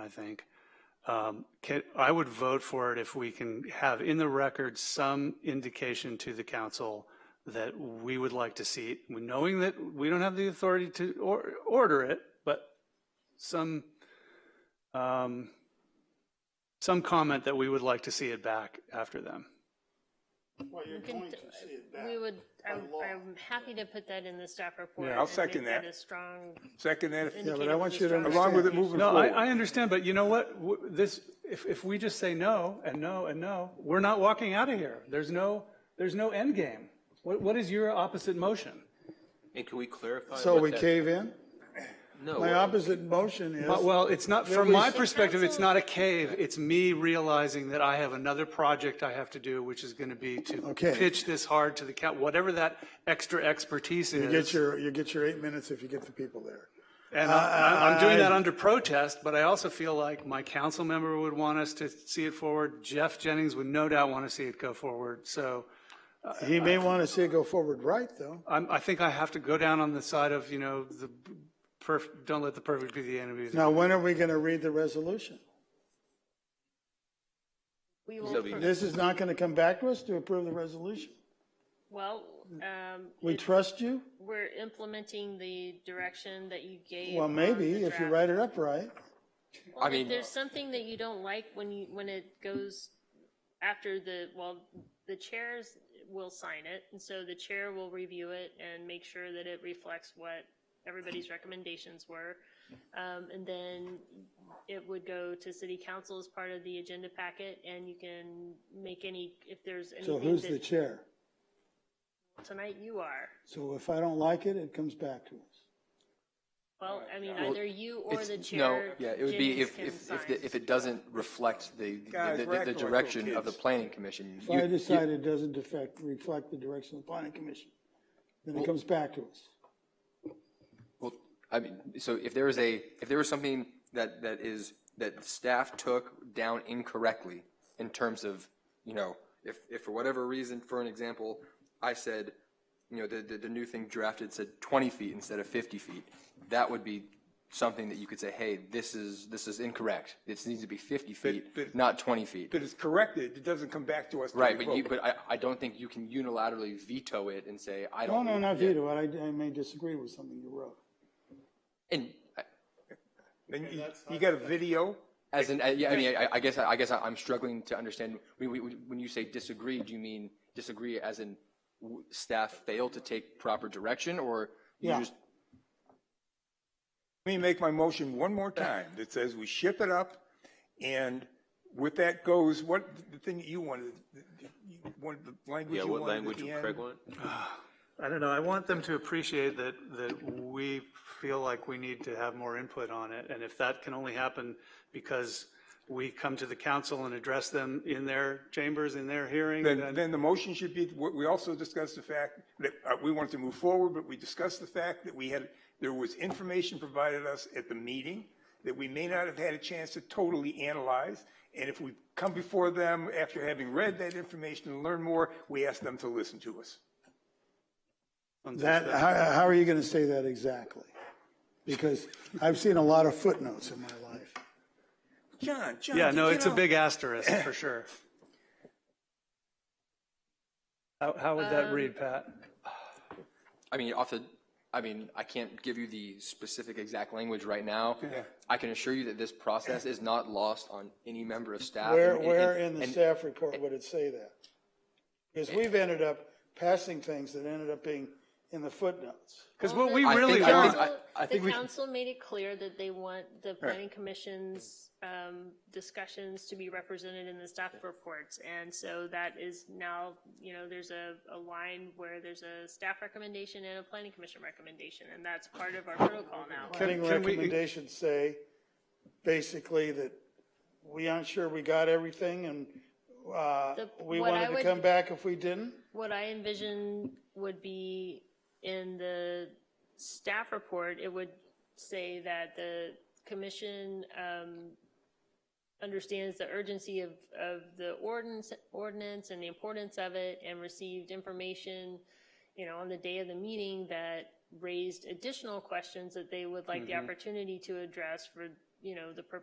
I think. Um, can, I would vote for it if we can have in the record some indication to the council that we would like to see, it, knowing that we don't have the authority to or, order it, but some, um, some comment that we would like to see it back after them. Well, you're can going to th- see it back. We would, I'm, law. I'm happy to put that in the staff report. Yeah, I'll and make second that. a strong Second that, indicator of want the you to strong- along with it moving No, I, forward. I understand, but you know what? W- This, if, if we just say no and no and no, we're not walking out of here. There's no, there's no end game. What, what is your opposite motion? And can we clarify? So what we that- cave in? No, My well, opposite motion Uh, is, Well, it's not, from my The perspective, it's council- not a cave. It's me realizing that I have another project I have to do, which is going to be to Okay. pitch this hard to the count, whatever that extra expertise you get is. your, you get your eight minutes if you get the people there. And I- I- I'm doing that under protest, but I also feel like my council member would want us to see it forward. Jeff Jennings would no doubt want to see it go forward. So He may want to see it go forward right, though. I'm, I think I have to go down on the side of, you know, the perf, don't let the perfect be the enemy. of the- Now, when are we going to read the resolution? We will, So we- pro- This is not going to come back to us to approve the resolution? well, um, We it- trust you? we're implementing the direction that you gave. Well, on maybe, the if you draft. write it up right. Well, I if mean- There's something that you don't like when you, when it goes after the, well, the chairs will sign it, and so the chair will review it and make sure that it reflects what everybody's recommendations were. Um, and then it would go to city council as part of the agenda packet, and you can make any, if there's So anything who's the that, chair? tonight you are. So if I don't like it, it comes back to us. Well, I mean, either you or it's- the No, chair, yeah, it would be Jennings if, can if, if, sign. the- if it doesn't reflect the, the- Guys, the, we're acting the like little direction of the kids. planning commission. If I decide it doesn't affect, reflect the direction of the planning commission, then it comes back to us. Well, I mean, so if there is a, if there is something that, that is, that staff took down incorrectly in terms of, you know, if, if for whatever reason, for an example, I said, you know, the, the, the new thing drafted said twenty feet instead of fifty feet, that would be something that you could say, hey, this is, this is incorrect. This needs to be fifty but- feet, not twenty feet. But it's corrected, it doesn't come back to us. to Right, be but you, voted. but I, I don't think you can unilaterally veto it and say, I No, don't. Oh, no, not yeah. veto, I, I may disagree with something you wrote. And uh, Then you, you got a video? as in, uh, yeah, I mean, I, I guess, I guess I- I'm struggling to understand, when, we- when you say disagree, do you mean disagree as in w- staff failed to take proper direction or you Yeah. just? Let me make my motion one more time that says we ship it up and with that goes, what, the thing that you wanted, you wanted the language Yeah, you what wanted at language the would end? Craig want? I don't know, I want them to appreciate that, that we feel like we need to have more input on it, and if that can only happen because we come to the council and address them in their chambers, in their hearing, Then, then, then the motion should be, we we also discussed the fact that uh, we wanted to move forward, but we discussed the fact that we had, there was information provided us at the meeting that we may not have had a chance to totally analyze. And if we come before them after having read that information and learn more, we ask them to listen to us. That, how, how are you going to say that exactly? Because I've seen a lot of footnotes in my life. John, John. yeah, no, you it's a know- big asterisk, for sure. How, how would Um, that read, Pat? I mean, off the, I mean, I can't give you the specific exact language right now. I can assure you that this process is not lost on any member of staff. Where, Uh, and- and- where in the and- staff report would it say that? Because we've ended up passing things that ended up being in the footnotes. Because Well, what the we I really think- I want. think- I- I think The we- council made it clear that they want the planning commission's um, discussions to be represented in the staff reports. And so that is now, you know, there's a, a line where there's a staff recommendation and a planning commission recommendation. And that's part of our protocol now. Planning can we- recommendations say basically that we aren't sure we got everything and, uh, The- we what I wanted to would- come back if we didn't? What I envision would be in the staff report, it would say that the commission um, understands the urgency of, of the ordinance, ordinance and the importance of it and received information, you know, on the day of the meeting that raised additional questions that they would like the opportunity to address for, you know, the purpose